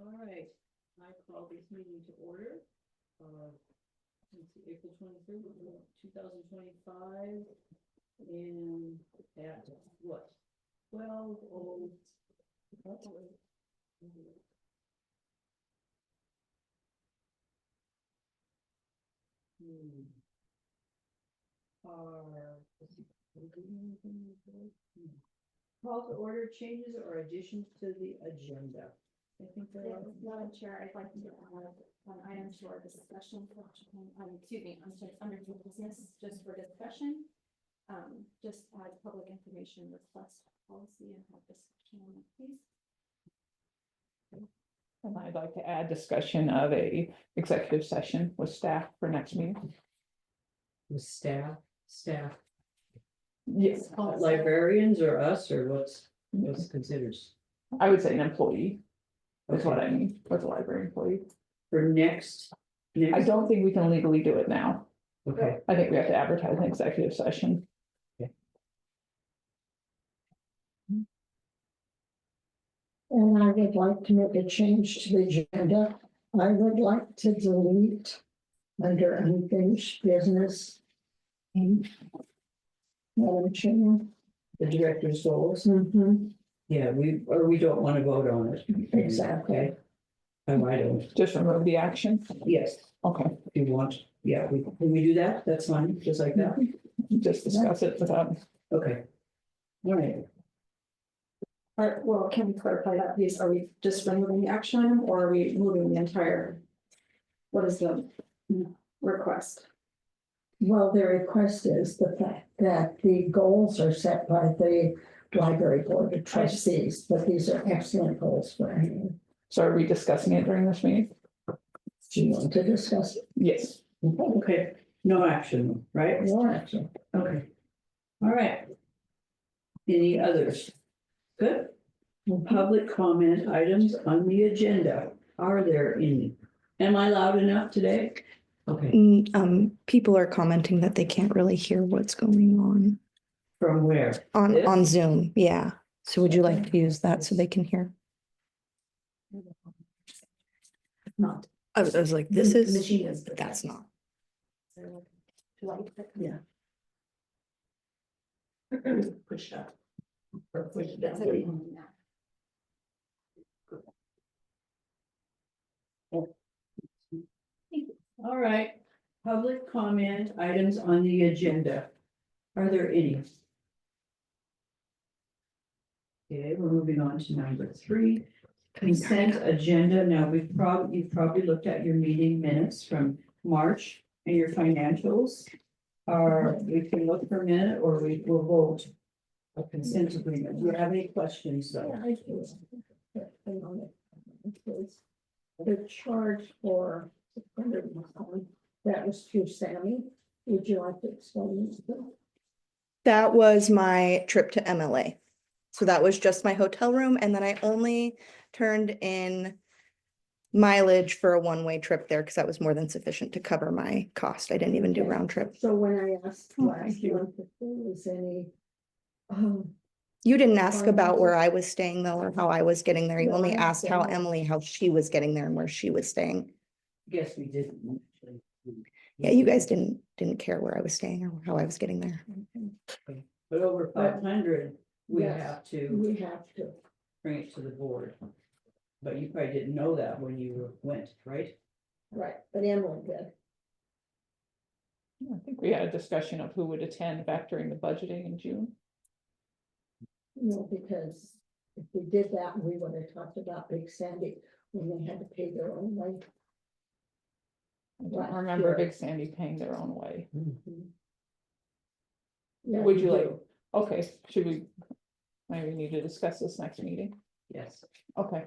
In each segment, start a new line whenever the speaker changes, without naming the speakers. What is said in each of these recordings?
All right, I call this meeting to order. Uh, It's April twenty-third, two thousand twenty-five. And at what? Twelve oh. Hmm. Uh, Are. Hmm. Call to order changes or additions to the agenda. I think there are.
Madam Chair, I'd like to add an item to our discussion, section, um, excuse me, I'm sorry, under new business, just for discussion. Um, just add public information request policy and have discussion on it, please.
And I'd like to add discussion of a executive session with staff for next meeting.
With staff, staff,
Yes,
Oh, uh, librarians or us or what's, what's considered
I would say an employee is what
Okay.
I mean, with a library employee.
for next.
I
next-
don't think we can legally do it now.
Okay,
I think we have to advertise an executive session.
And I would like to make a change to the agenda. I would like to delete under unfinished business. um,
Mm-hmm.
Madam Chair.
the director's goals.
Mhm.
Yeah, we, or we don't want to vote on it.
Exactly.
Um, I don't,
Just remove the action.
yes,
Okay,
if you want, yeah, we, can we do that? That's fine, just like that.
just discuss it without.
Okay. All right,
Or, Uh, well, can we clarify that, please? Are we just removing the action item or are we moving the entire? What is the request?
Well, the request is the fact that the goals are set by the library board of trustees, but these are excellent goals for anyone.
So are we discussing it during this meeting?
Do you want to discuss it?
Yes.
okay, no action, right?
No action.
Okay. All right. Any others? Good. Public comment items on the agenda. Are there any? Am I loud enough today? Okay,
Mm, um, people are commenting that they can't really hear what's going on
from where?
on
This?
on Zoom. Yeah. So would you like to use that so they can hear?
Not.
I was, I was like, this is,
Machine is.
but that's not.
Yeah.
Push up. Or push
That's
down.
it.
All right, public comment items on the agenda. Are there any? Okay, we're moving on to number three, consent agenda. Now, we've probably, you've probably looked at your meeting minutes from March and your financials. Are, we can look for a minute or we will vote a consent agreement. Do you have any questions though?
The charge for that was through Sammy. Would you like to explain this?
That was my trip to MLA. So that was just my hotel room and then I only turned in mileage for a one-way trip there because that was more than sufficient to cover my cost. I didn't even do
Okay.
round trip.
So when I asked
Oh,
last
thank you.
month if there was any. um,
You didn't ask
Or
about
maybe-
where I was staying though, or how I was getting there. You
No,
only
I
asked how
understand.
Emily, how she was getting there and where she was staying.
Yes, we didn't. actually.
Yeah,
Mm-hmm.
you guys didn't, didn't care where I was staying or how I was getting there.
But over five hundred, we
Yes.
have to
We have to,
bring it to the board. But you probably didn't know that when you went, right?
right, but Emily did.
I think we had a discussion of who would attend back during the budgeting in June.
No, because if we did that, we would have talked about Big Sandy when they had to pay their own way.
I
Last
don't remember
year.
Big Sandy paying their own way.
Yeah,
Would you
we
like-
do.
Okay, should we? Maybe we need to discuss this next meeting.
Yes,
Okay,
okay.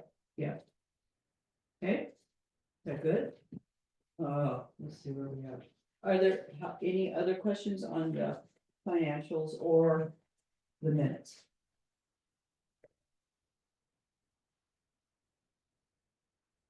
Is that good? Uh, let's see where we have. Are there ho- any other questions on the financials or the minutes?